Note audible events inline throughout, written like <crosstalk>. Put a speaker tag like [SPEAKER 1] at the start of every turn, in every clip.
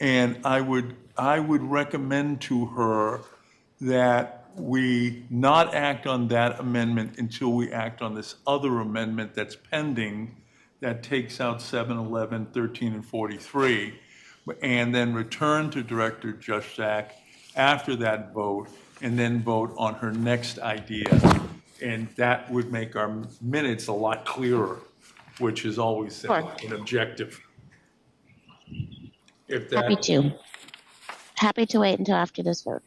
[SPEAKER 1] And I would, I would recommend to her that we not act on that amendment until we act on this other amendment that's pending that takes out 7, 11, 13, and 43, and then return to Director Juszak after that vote, and then vote on her next idea. And that would make our minutes a lot clearer, which is always
[SPEAKER 2] Sure.
[SPEAKER 1] an objective. If
[SPEAKER 2] Happy
[SPEAKER 1] that,
[SPEAKER 2] to. Happy to wait until after this vote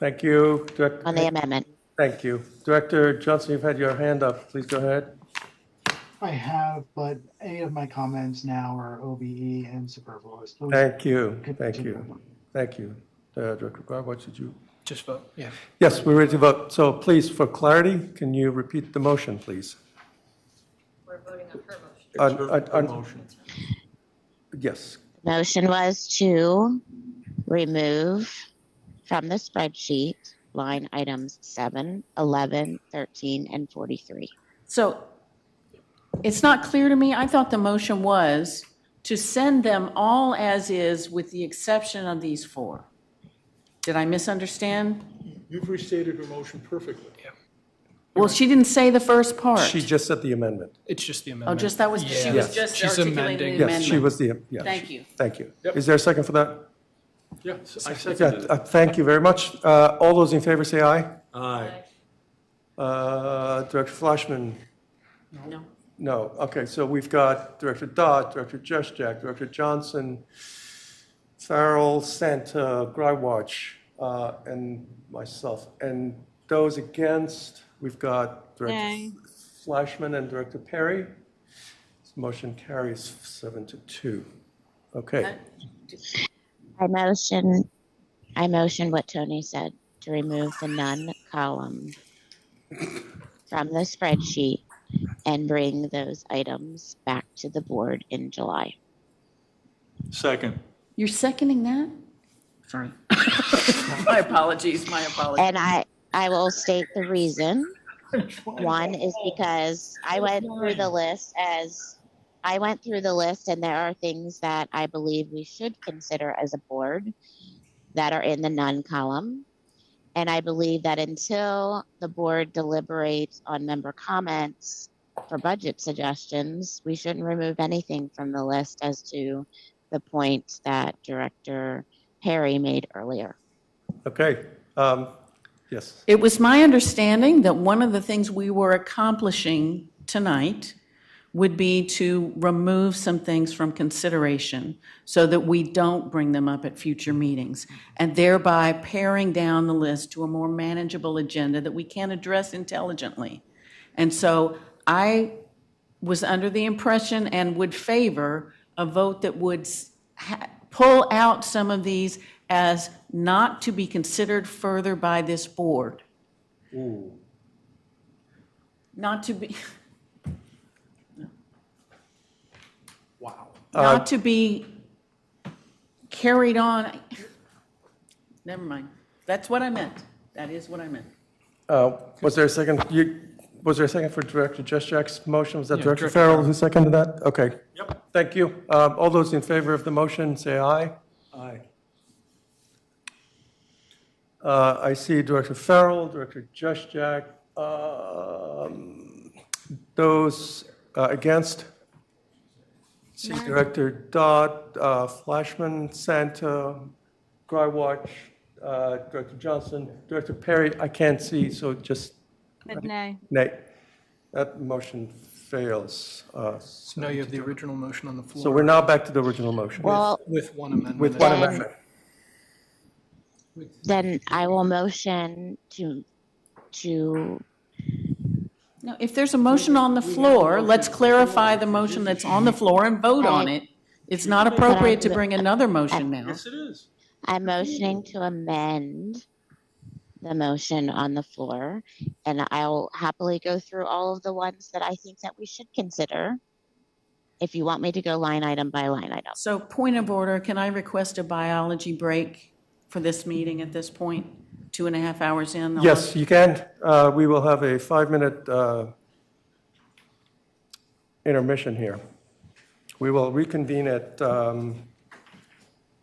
[SPEAKER 3] Thank you, Director.
[SPEAKER 2] on the amendment.
[SPEAKER 3] Thank you. Director Johnson, you've had your hand up. Please go ahead.
[SPEAKER 4] I have, but any of my comments now are OBE and superfluous. Those-
[SPEAKER 3] Thank you, thank you, thank you. Uh, Director Barb, what should you?
[SPEAKER 5] Just vote, yeah.
[SPEAKER 3] Yes, we're ready to vote. So please, for clarity, can you repeat the motion, please?
[SPEAKER 6] We're voting on her motion.
[SPEAKER 3] On- on- on-
[SPEAKER 1] motion.
[SPEAKER 3] Yes,
[SPEAKER 2] Motion was to remove from the spreadsheet line items 7, 11, 13, and 43.
[SPEAKER 7] So it's not clear to me, I thought the motion was to send them all as is with the exception of these four. Did I misunderstand?
[SPEAKER 1] You've restated her motion perfectly.
[SPEAKER 7] Well, she didn't say the first part.
[SPEAKER 3] she just said the amendment.
[SPEAKER 5] It's just the
[SPEAKER 7] Oh,
[SPEAKER 5] amendment.
[SPEAKER 7] just that was, she
[SPEAKER 5] Yeah.
[SPEAKER 3] Yes.
[SPEAKER 7] was just
[SPEAKER 5] She's
[SPEAKER 7] articulating
[SPEAKER 5] amending.
[SPEAKER 7] the
[SPEAKER 3] Yes, she
[SPEAKER 7] amendment.
[SPEAKER 3] was the, yes.
[SPEAKER 7] Thank you.
[SPEAKER 3] Thank you.
[SPEAKER 1] Yep.
[SPEAKER 3] Is there a second for that?
[SPEAKER 1] Yes, I
[SPEAKER 3] Yeah,
[SPEAKER 1] seconded it.
[SPEAKER 3] uh, thank you very much. Uh, All those in favor say aye.
[SPEAKER 1] Aye.
[SPEAKER 3] Uh, Director Flashman?
[SPEAKER 7] No.
[SPEAKER 3] No, okay, so we've got Director Dodd, Director Juszczyk, Director Johnson, Farrell, Santa, Grywacz, uh, and myself. And those against, we've got Director Flashman and Director Perry. This Motion carries seven to two. Okay,
[SPEAKER 2] I motion, I motion what Tony said, to remove the none column from the spreadsheet and bring those items back to the board in July.
[SPEAKER 1] Second.
[SPEAKER 7] You're seconding that? Sorry. <laughs> My apologies, my apologies.
[SPEAKER 2] And I, I will state the reason. One is because I went through the list as, I went through the list and there are things that I believe we should consider as a board that are in the none column. And I believe that until the board deliberates on member comments for budget suggestions, we shouldn't remove anything from the list as to the point that Director Perry made earlier.
[SPEAKER 3] okay, um, yes,
[SPEAKER 7] It was my understanding that one of the things we were accomplishing tonight would be to remove some things from consideration so that we don't bring them up at future meetings, and thereby paring down the list to a more manageable agenda that we can address intelligently. And so I was under the impression and would favor a vote that would s- ha- pull out some of these as not to be considered further by this board. Not to be, <laughs>
[SPEAKER 5] Wow.
[SPEAKER 7] not to be carried on. Never mind. That's what I meant. That is what I meant.
[SPEAKER 3] Uh, Was there a second, you, was there a second for Director Juszczyk's motion? Was that
[SPEAKER 5] Yeah,
[SPEAKER 3] Director
[SPEAKER 5] Director
[SPEAKER 3] Farrell who seconded that? Okay.
[SPEAKER 1] Yep.
[SPEAKER 3] Thank you. Um, All those in favor of the motion, say aye.
[SPEAKER 1] Aye.
[SPEAKER 3] Uh, I see Director Farrell, Director Juszczyk. um, Those uh, against? See Director Dodd, uh, Flashman, Santa, Grywacz, uh, Director Johnson, Director Perry. I can't see, so just
[SPEAKER 8] Nay.
[SPEAKER 3] Nay. That motion fails. Uh,
[SPEAKER 5] So now you have the original motion on the
[SPEAKER 3] So
[SPEAKER 5] floor
[SPEAKER 3] we're now back to the original motion.
[SPEAKER 2] Well,
[SPEAKER 5] with one amendment.
[SPEAKER 3] With one
[SPEAKER 2] Then-
[SPEAKER 3] amendment.
[SPEAKER 2] Then I will motion to, to,
[SPEAKER 7] No, if there's a motion on the floor, let's clarify the motion that's on the floor and vote on it. It's not appropriate to bring another motion now.
[SPEAKER 1] Yes, it is.
[SPEAKER 2] I'm motioning to amend the motion on the floor, and I'll happily go through all of the ones that I think that we should consider, if you want me to go line item by line item.
[SPEAKER 7] So point of order, can I request a biology break for this meeting at this point? Two and a half hours in? I'll-
[SPEAKER 3] Yes, you can. Uh, We will have a five-minute uh, intermission here. We will reconvene at um,